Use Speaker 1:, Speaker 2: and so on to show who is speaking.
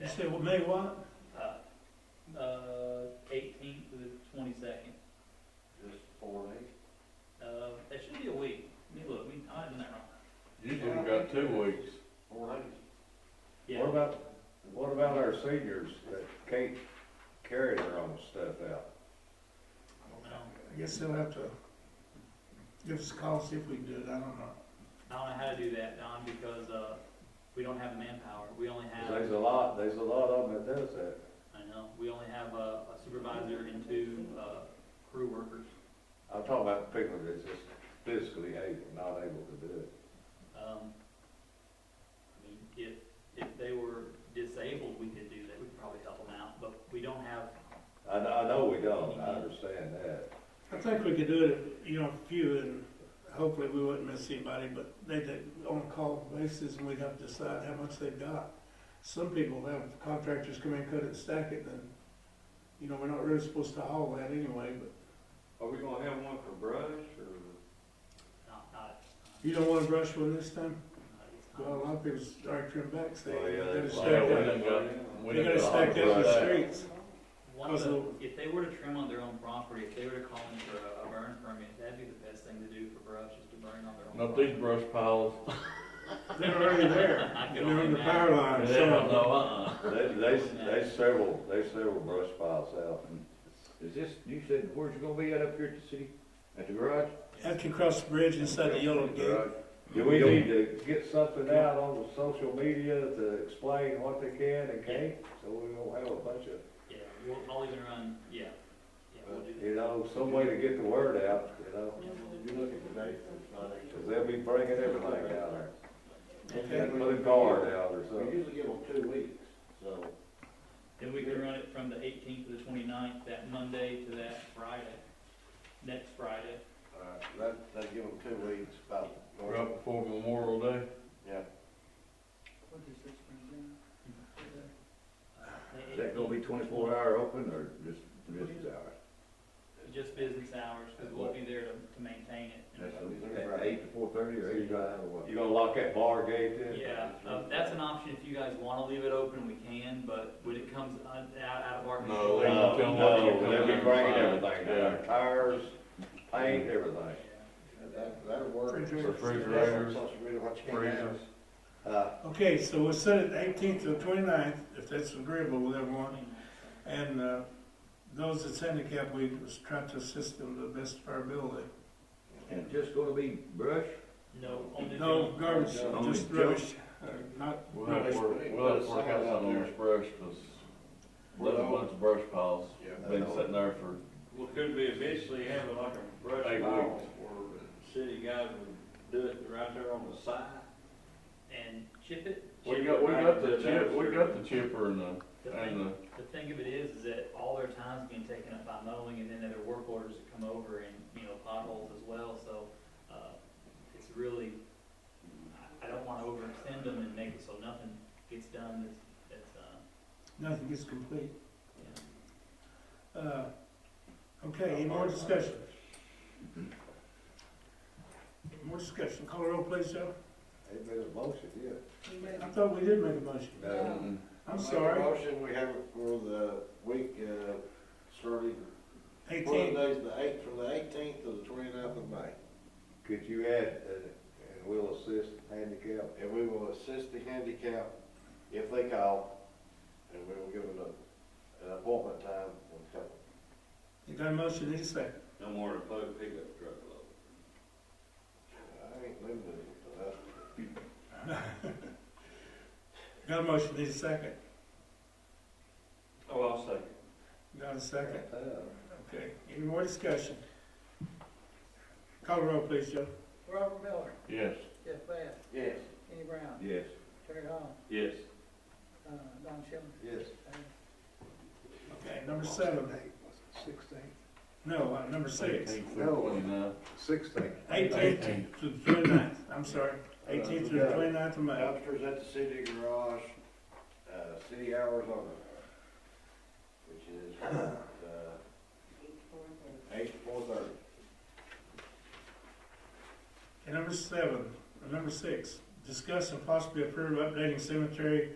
Speaker 1: You said, well, May what?
Speaker 2: Uh, uh, eighteenth to the twenty-second.
Speaker 3: Just four days.
Speaker 2: Uh, that should be a week. Let me look, we, I didn't that wrong.
Speaker 4: Usually we got two weeks.
Speaker 3: Four days.
Speaker 2: Yeah,
Speaker 5: What about, what about our seniors that can't carry their own stuff out?
Speaker 2: I
Speaker 1: I guess they'll have to give us a call, see if we can do it, I don't know.
Speaker 2: don't know how to do that, Don, because, uh, we don't have manpower. We only
Speaker 5: 'Cause
Speaker 2: have.
Speaker 5: There's a lot, there's a lot of them that does that.
Speaker 2: I know, we only have uh, a a supervisor and two uh, crew workers.
Speaker 5: I'm talking about people that's just physically able, not able to do it.
Speaker 2: Um, I mean, if, if they were disabled, we could do that, we could probably help them out, but we don't have,
Speaker 5: I, kn- I know we don't, I understand that.
Speaker 1: I think we could do it, you know, a few, and hopefully we wouldn't miss anybody, but they, they, on a call basis, and we'd have to decide how much they've got. Some people have contractors come in, cut it, stack it, and, you know, we're not really supposed to haul that anyway, but
Speaker 3: Are we gonna have one for brush or?
Speaker 2: not, not.
Speaker 1: you don't wanna brush one this time?
Speaker 2: not at this time.
Speaker 1: Well, a lot of people start turning back, saying,
Speaker 5: Oh,
Speaker 1: they
Speaker 5: yeah,
Speaker 1: gotta
Speaker 5: that's
Speaker 1: stack
Speaker 5: why.
Speaker 1: that, they gotta stack that in the streets.
Speaker 2: One of the, if they were to trim on their own property, if they were to call in for a- a burn permit, that'd be the best thing to do for brush, is to burn on their own.
Speaker 4: Not these
Speaker 2: property.
Speaker 4: brush piles.
Speaker 1: They're already there,
Speaker 2: I can
Speaker 1: and they're on
Speaker 2: only
Speaker 1: the power line,
Speaker 4: They don't
Speaker 1: so.
Speaker 4: know, uh-uh.
Speaker 5: They, they, they several, they several brush piles out.
Speaker 6: Is this, you said, where's it gonna be at up here at the city, at the garage?
Speaker 1: Have to cross the bridge inside the yellow gate.
Speaker 5: Do we need to get something out on the social media to explain what they can and can't? So we don't have a bunch of
Speaker 2: Yeah, we'll, I'll even run, yeah, yeah, we'll do that.
Speaker 5: You know, some way to get the word out, you know,
Speaker 3: Did you look at the date?
Speaker 5: because they'll be bringing everything out there.
Speaker 1: Okay.
Speaker 5: And put a guard out or
Speaker 3: We
Speaker 5: something.
Speaker 3: usually give them two weeks, so.
Speaker 2: Then we can run it from the eighteenth to the 29th, that Monday to that Friday, next Friday.
Speaker 3: Alright, uh, that, that'd give them two weeks about.
Speaker 4: Right before Memorial Day.
Speaker 3: Yeah.
Speaker 6: Is that gonna be twenty-four hour open or just business hours?
Speaker 2: Just business hours, because we'll be there to, to maintain it.
Speaker 6: That's a- at eight to four thirty or eight to nine or what?
Speaker 5: You gonna lock that bar gate then?
Speaker 2: Yeah, um, that's an option if you guys want to leave it open, we can, but when it comes un- out, out of our control.
Speaker 4: No, they
Speaker 5: No,
Speaker 4: won't tell them what
Speaker 5: no,
Speaker 4: you're
Speaker 5: they'll be
Speaker 4: doing.
Speaker 5: bringing everything down
Speaker 4: Yeah.
Speaker 5: there, tires, paint, everything.
Speaker 3: That, that'll work.
Speaker 4: Refrigerators,
Speaker 3: Social media, what you can have.
Speaker 4: freezers.
Speaker 5: Uh,
Speaker 1: Okay, so we'll set it eighteenth to the 29th, if that's agreeable with everyone.
Speaker 2: Yeah.
Speaker 1: And, uh, those that's handicapped, we just try to assist them to the best of our ability.
Speaker 6: And just gonna be brush?
Speaker 2: No, only.
Speaker 1: No garbage,
Speaker 6: Only
Speaker 1: just
Speaker 6: junk.
Speaker 1: rubbish, uh, not
Speaker 4: We'll have
Speaker 1: rubbish.
Speaker 4: to work, we'll have to work out something with brush, because there's a bunch of brush piles. Been
Speaker 6: Uh,
Speaker 4: sitting there for
Speaker 7: Well, could we eventually have it like a brush
Speaker 4: Eight
Speaker 7: pile
Speaker 4: weeks.
Speaker 7: where the city guys would do it right there on the side?
Speaker 2: And chip it.
Speaker 4: We got, we got the chip, we got the chipper and the,
Speaker 2: The
Speaker 4: and
Speaker 2: thing,
Speaker 4: the,
Speaker 2: the thing of it is, is that all their time's being taken up by mowing and then other work orders that come over and, you know, potholes as well, so, uh, it's really, I, I don't wanna overextend them and make it so nothing gets done that's, that's, uh,
Speaker 1: Nothing gets complete.
Speaker 2: you know.
Speaker 1: Uh, okay, any more discussion? More discussion, call roll please, Joe.
Speaker 5: ain't been a motion yet.
Speaker 1: I thought we did make a motion.
Speaker 7: Oh.
Speaker 5: No.
Speaker 1: I'm
Speaker 3: Make a
Speaker 1: sorry,
Speaker 3: Motion, we have it for the week, uh, starting,
Speaker 1: eighteen.
Speaker 3: one days, the eighth, from the eighteenth to the twenty-ninth of May.
Speaker 5: Could you add, uh, and we'll assist handicap?
Speaker 3: And we will assist the handicap if they call, and we will give them a- an appointment time when coming.
Speaker 1: You got a motion, any second?
Speaker 7: No more than five pickup truck load.
Speaker 3: I ain't limited to that.
Speaker 1: Got a motion, need a second?
Speaker 7: Oh, I'll second.
Speaker 1: Got a second?
Speaker 5: Uh,
Speaker 1: Okay, any more discussion? Call roll please, Joe.
Speaker 8: Robert Miller,
Speaker 4: yes.
Speaker 8: Jeff Bass,
Speaker 3: Yes.
Speaker 8: Kenny Brown,
Speaker 6: Yes.
Speaker 8: Terry Hall,
Speaker 7: Yes.
Speaker 8: uh, Don Shelton,
Speaker 5: Yes.
Speaker 8: uh,
Speaker 1: Okay, number seven.
Speaker 5: Sixteen.
Speaker 1: No, uh, number six.
Speaker 4: Eighteenth through twenty-nine.
Speaker 5: Sixteen.
Speaker 1: Eighteenth to the twenty-ninth, I'm sorry. Eighteenth to the twenty-ninth of May.
Speaker 3: Dumpsters at the city garage, uh, city hours only, which is, uh, eight to four thirty.
Speaker 1: And number seven, uh, number six, discuss and possibly approve updating cemetery